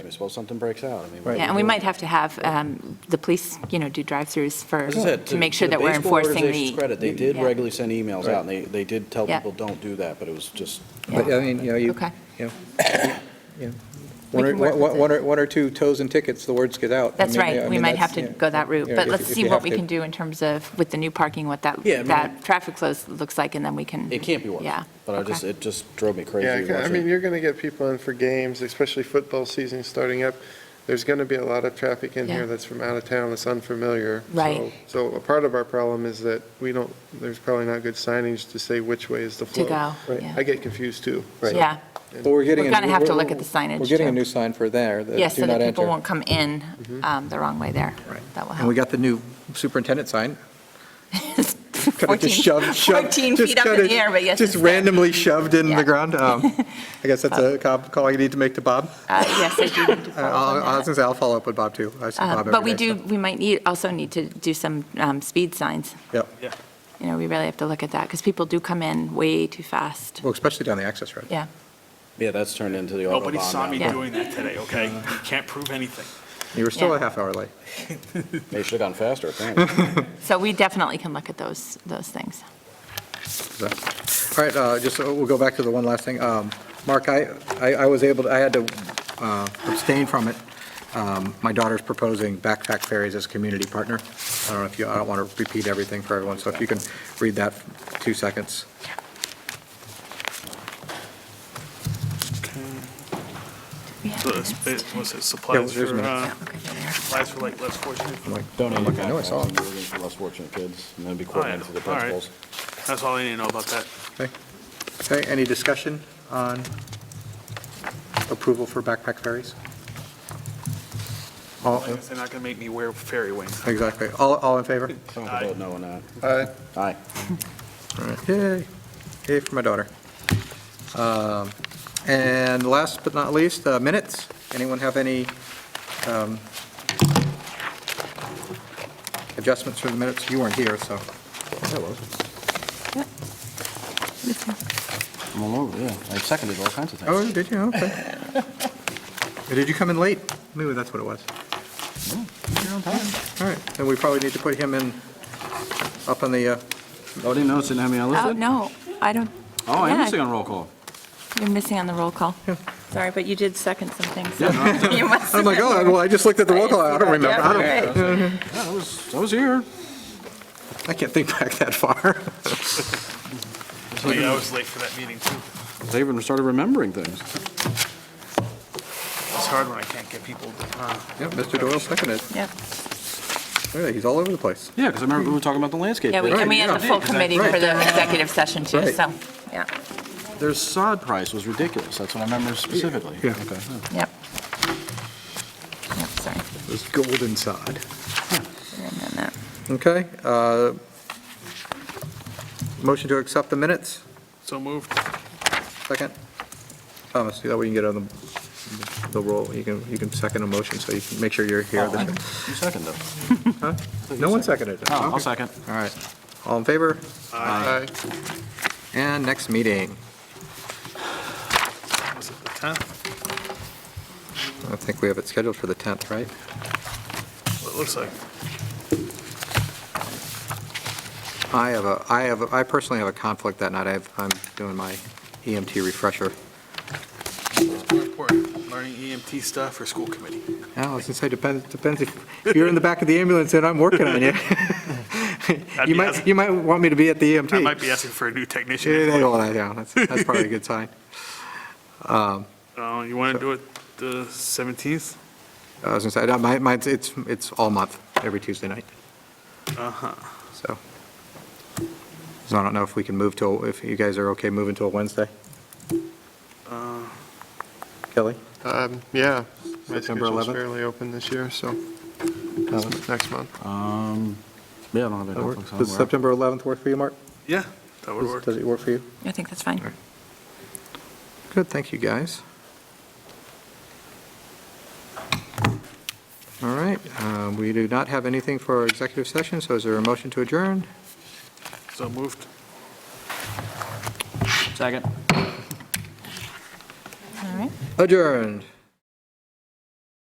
suppose something breaks out, I mean. Right. what Yeah, do Yeah, and we do? might have to have um, the police, you know, do drive-throughs for, As I said, to make sure that we're enforcing To the baseball organization's the. credit, they did Yeah. regularly send emails out, and they, they did tell Yeah. people, don't do that, but it was just. But, I mean, you know, you, Okay. you know, yeah. We One or- can work with one- one it. or, one or two toes and tickets, the words get out. I That's mean, yeah, I right, we mean, might have that's- to yeah. go that route, Yeah, but if- let's if see you what have we to. can do in terms of, with the new parking, what that, Yeah, I mean- that traffic flow looks like, and then we can. It can't be worse. Yeah, But I okay. just, it just drove me Yeah, crazy. I watching- mean, you're going to get people in for games, especially football season starting up. There's going to be a lot of traffic in Yeah. here that's from out of town, that's unfamiliar. Right. So so a part of our problem is that we don't, there's probably not good signage to say which way is the To flow. go, Right. yeah. I get confused too. Right. Yeah, But we're getting. a We're new- gonna have to we're- look at the signage, We're getting a too. new sign for there, the do not yeah, enter. so that people won't come in Mm-hmm. um, the wrong way there. Right. That will And we help. got the new superintendent sign. Kind of 14 just shoved, shoved. 14 just feet up in kinda the air, but yes. Just it's there. randomly shoved in Yeah. the ground. Um, I guess that's a co- call you need to make to Bob. Uh, Yes, I do need to Uh, follow up on I'll- I was that. gonna say, I'll follow up with Bob, too. I see Uh, Bob every But we day, do, so- we might need, also need to do some um, speed signs. Yep, You know, we really have to look at that, because people do come in way too fast. well, especially down the access road. Yeah, Yeah, that's turned into the Nobody saw Autobahn me Yeah. now. doing that today, okay? You can't prove anything. You were still Yeah. a half hour late. They should have gone faster, apparently. so we definitely can look at those, those things. So, All right, uh, just, uh, we'll go back to the one last thing. Um, Mark, I, I I was able, to. I had to uh, abstain from it. Um, My daughter's proposing Backpack Ferries as a community partner. I don't know if you, I don't want to repeat everything for everyone, so if you can read that, two seconds. We have So it's, minutes. it was it supplies there's for, minutes. uh, Okay, there. supplies for like less fortunate? I'm like, Donating I know I saw backpacks it. and moving for less fortunate kids, and then be yeah. coordinated to the All right. principals. That's all I need to know about that. Okay, Okay, any discussion on approval for Backpack Ferries? All, They're not gonna make me wear fairy wings. exactly, all, all in favor? Don't vote no on that. Uh, Aye. All right. Yay, yay for my daughter. Um, And last but not least, uh, minutes. Anyone have any um, adjustments for the minutes? You weren't here, so. I'm all over, yeah. I seconded all kinds of things. Oh, did you? Okay. Did you come in late? Maybe that's what it was. All right, then we probably need to put him in, up on the, uh, Oh, didn't notice, didn't have me on Oh, listed? no, I don't, Oh, I am Yeah. missing on roll call. you're missing on the roll call. Sorry, but you did second something, so you must. I'm like, oh, well, I just looked at the roll call. I don't remember. I don't, don't. Yeah, I was, I was here. I can't think back that far. Oh, yeah, I was late for that meeting too. I even started remembering things. It's hard when I can't get people to, uh, Yeah, Mr. Doyle seconded. Yep, Really, he's all over the place. Yeah, because I remember we were talking about the landscape. yeah, we- plan. and we had the full Right, yeah, committee right. for the executive session too, Right. so, yeah, Their sod price was ridiculous, that's what I remember specifically. Yeah. Okay. yep. Yep, sorry. This golden sod. And then that. Okay. uh, Motion to accept the minutes, so moved. second. Thomas, that way you can get on the, the roll, you can, you can second a motion, so you can make sure you're here. Oh, You second though. Huh? No one seconded it. Oh, I'll Okay. second. All right. All in favor? Aye. And next meeting, Was it the 10th? I think we have it scheduled for the 10th, right? Well, It looks like. I have a, I have, a- I personally have a conflict that night. I have, I'm doing my EMT refresher. It's more important, learning EMT stuff or school committee. Yeah, I was gonna say, depends, depends, if if you're in the back of the ambulance and I'm working on you. You be might, awesome. you might want me to be at the E EMT. I might be asking for a new Yeah, technician. they hold that down, that's, that's probably a good sign. Um, Uh, you wanna do it the 17th? I was gonna say, I don't- my, my, it's, it's all month, every Tuesday night, Uh-huh. so. So I don't know if we can move to, if you guys are okay moving to a Wednesday? Uh, Kelly? um, Yeah. My September schedule's 11th? fairly open this year, so it's next month. Um, yeah, I don't have any That work? conflicts. on Does where- September 11th work for you, Mark? Yeah, that would Does- work. Does it work for you? I think that's fine. All right. Good, thank you, guys. All right, um, we do not have anything for our executive session, so is there a motion to adjourn? So moved. Second. All right. Adjourned.